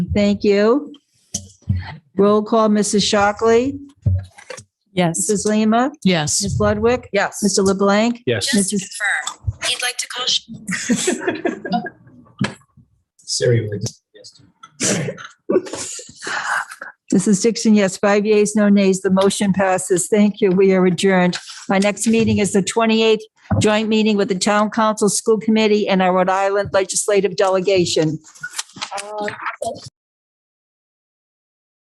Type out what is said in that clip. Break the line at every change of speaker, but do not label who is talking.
Thank you. Roll call, Mrs. Shockley,
Yes.
Mrs. Lima,
Yes.
Ms. Ludwig,
Yes.
Mr. LeBlanc.
Yes.
Mrs.
Just to confirm, he'd like to call sh-
Siri would. yes.
Mrs. Dixon, yes, five yeas, no nays. The motion passes. Thank you. We are adjourned. My next meeting is the 28th joint meeting with the Town Council School Committee and our Rhode Island Legislative Delegation.